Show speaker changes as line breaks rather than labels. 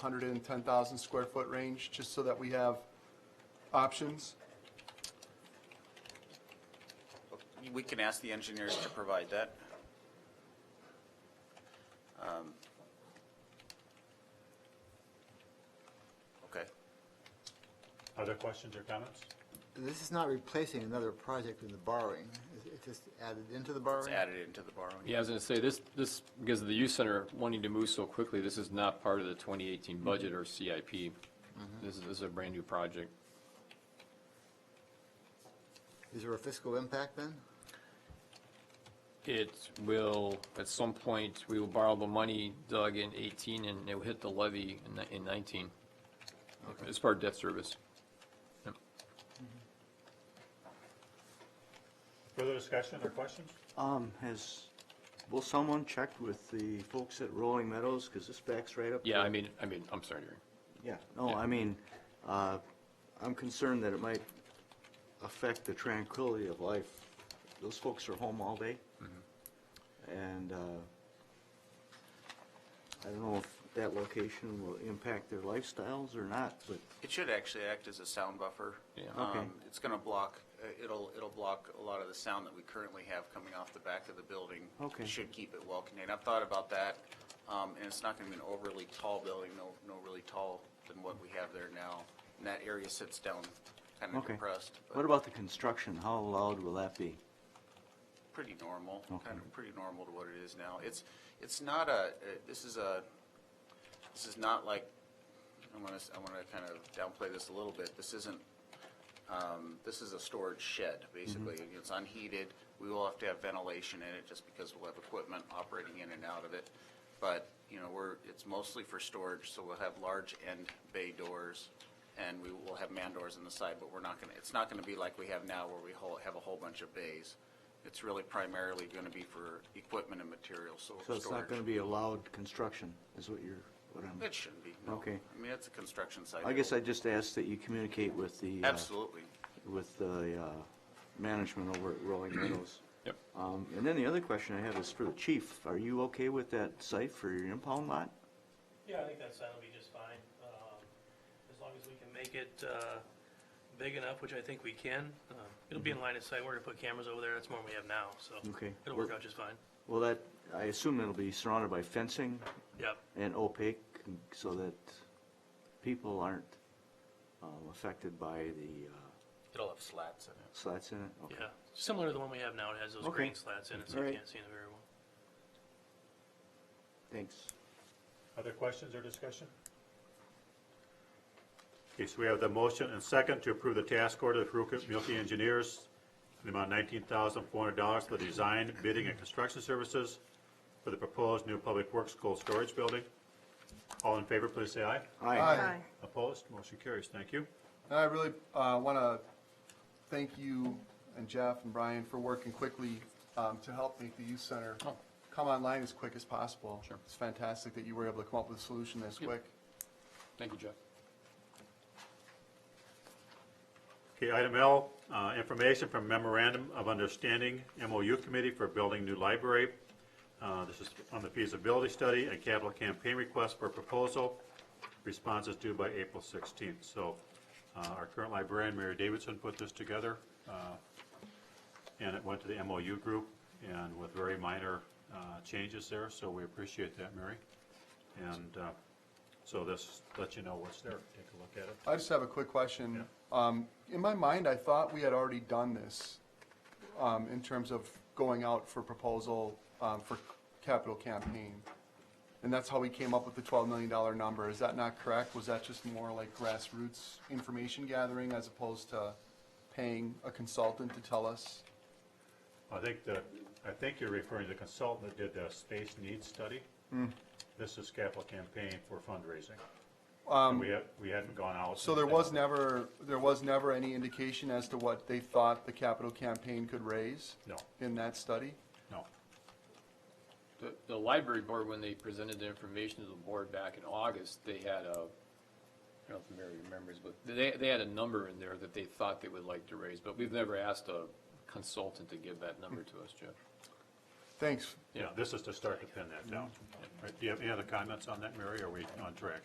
110,000 square foot range, just so that we have options.
We can ask the engineers to provide that. Um, Okay.
Other questions or comments?
This is not replacing another project in the borrowing. It's- It's just added into the borrowing?
It's added into the borrowing.
Yeah, I was going to say, this, this, because of the youth center wanting to move so quickly, this is not part of the 2018
Mm-hmm.
budget or CIP. This is, this is a brand-new project.
Is there a fiscal impact then?
It will, at some point, we will borrow the money, Doug, in 18, and it will hit the levy in ni- in 19. It's part of debt service. Yep.
Further discussion or questions?
Um, has, will someone check with the folks at Rolling Meadows, because this backs right up?
Yeah,
to-
I mean, I mean, I'm sorry, Jerry.
Yeah, no, I mean, uh, I'm concerned that it might affect the tranquility of life. Those folks are home all day.
Mm-hmm.
And, uh, I don't know if that location will impact their lifestyles or not, but
It should actually act as a sound buffer.
Yeah.
Okay.
Um, It's going to block, uh, it'll, it'll block a lot of the sound that we currently have coming off the back of the building.
Okay.
It Should keep it well contained. I've thought about that, um, and it's not going to be an overly tall building, no, no really tall than what we have there now. And that area sits down, kind of
Okay.
compressed,
What
but
about the construction? How loud will that be?
pretty normal,
Okay.
kind of pretty normal to what it is now. It's, it's not a, uh, this is a, this is not like, I want to, I want to kind of downplay this a little bit. This isn't um, this is a storage shed, basically.
Mm-hmm.
It's unheated. We will have to have ventilation in it just because we'll have equipment operating in and out of it. But, you know, we're, it's mostly for storage, so we'll have large end bay doors and we will have man doors on the side, but we're not gonna, it's not gonna be like we have now where we whole, have a whole bunch of bays. It's really primarily gonna be for equipment and materials, so
So it's not gonna
storage.
be a loud construction, is what you're, what I'm.
It shouldn't be, no.
Okay.
I mean, it's a construction site.
I guess I just ask that you communicate with the. uh,
Absolutely.
With the uh, management over at Rolling Meadows.
Yep.
Um, And then the other question I have is for the chief. Are you okay with that site for your impound lot?
Yeah, I think that sound will be just fine, um, as long as we can make it, uh, big enough, which I think we can. Uh, It'll be in
Mm-hmm.
line of sight, we're gonna put cameras over there, that's more than we have now, so.
Okay.
It'll work out just fine,
Well, that, I assume it'll be surrounded by fencing
yep.
and opaque so that people aren't um, affected by the uh,
It'll have slats in it.
slats in it? Okay.
Yeah, similar to the one we have now, it has those
Okay.
green slats in it, so
All
you
right.
can't see in it very well.
Thanks.
Other questions or discussion? Okay, so we have the motion and second to approve the task order for Milwaukee Engineers in the amount nineteen thousand four hundred dollars for the design, bidding, and construction services for the proposed new public works cold storage building. All in favor, please say aye.
Aye.
Opposed? Motion carries. Thank you.
And I really want to thank you and Jeff and Brian for working quickly um, to help make the youth center come online as quick as possible.
Oh. Sure.
It's fantastic that you were able to come up with a solution this
Yep.
quick.
Thank you, Jeff.
Okay, item L, uh, information from memorandum of understanding MOU committee for building new library. Uh, This is on the feasibility study and capital campaign request for proposal. Response is due by April 16th. So uh, our current librarian, Mary Davidson, put this together, uh, and it went to the MOU group and with very minor uh, changes there, so we appreciate that, Mary. And uh, so this lets you know what's there. Take a look at it.
I just have a quick question. Um, In my mind, I thought we had already done this um, in terms of going out for proposal um, for capital campaign. And that's how we came up with the $12 million number. Is that not correct? Was that just more like grassroots information gathering as opposed to paying a consultant to tell us?
I think the, I think you're referring to the consultant that did the space needs study.
Mm.
This is capital campaign for fundraising. And we had, we hadn't gone out.
Um, So there was never, there was never any indication as to what they thought the capital campaign could raise
No,
in that study?
no.
The, the library board, when they presented the information to the board back in August, they had a, I don't know if Mary remembers, but they, they had a number in there that they thought they would like to raise, but we've never asked a consultant to give that number to us, Jeff.
Thanks. Mm.
Yeah, this is to start to pin that down. Right, Do you have any other comments on that, Mary? or Are we on track?